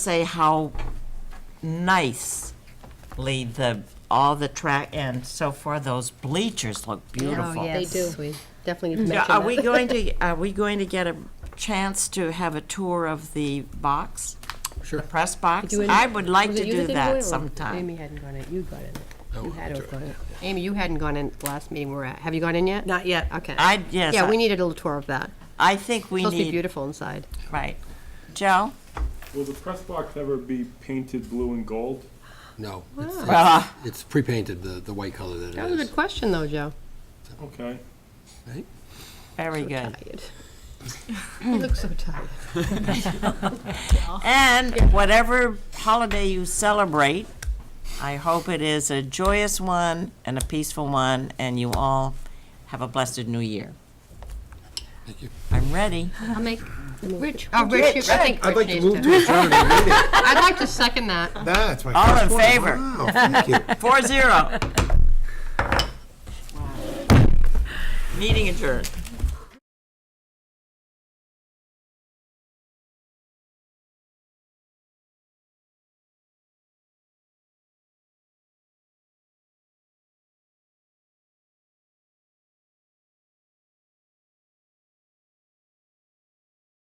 say how nicely the, all the track and so far, those bleachers look beautiful. They do. We Oh, definitely need to Now, mention Are that. uh, we going to, are we going to get a chance to have a tour of the box? Sure. The press box? You and- I would like was to it you do did go in, or that sometime. Amy hadn't gone in, you got in. You had to have gone in. Amy, you hadn't gone in the last meeting we were at. Have you gone in yet? Not yet. Okay. I, yes, Yeah, we I- needed a little tour of that. I think we Supposed to be need, beautiful inside. right. Joe? Will the press box ever be painted blue and gold? No, it's, it's- Ah. it's pre-painted, the, the white color that That it was a good is. question, though, Joe. Okay. right? Very good. Tired. You look so tired. And whatever holiday you celebrate, I hope it is a joyous one and a peaceful one, and you all have a blessed new year. Thank you. I'm ready. I'll make, Rich, oh, Rich, you- I think I'd Rich like to needs move to. to adjourn our meeting. I'd like to second that. That's my All in first one. favor? Wow, thank you. Four zero. Meeting adjourned.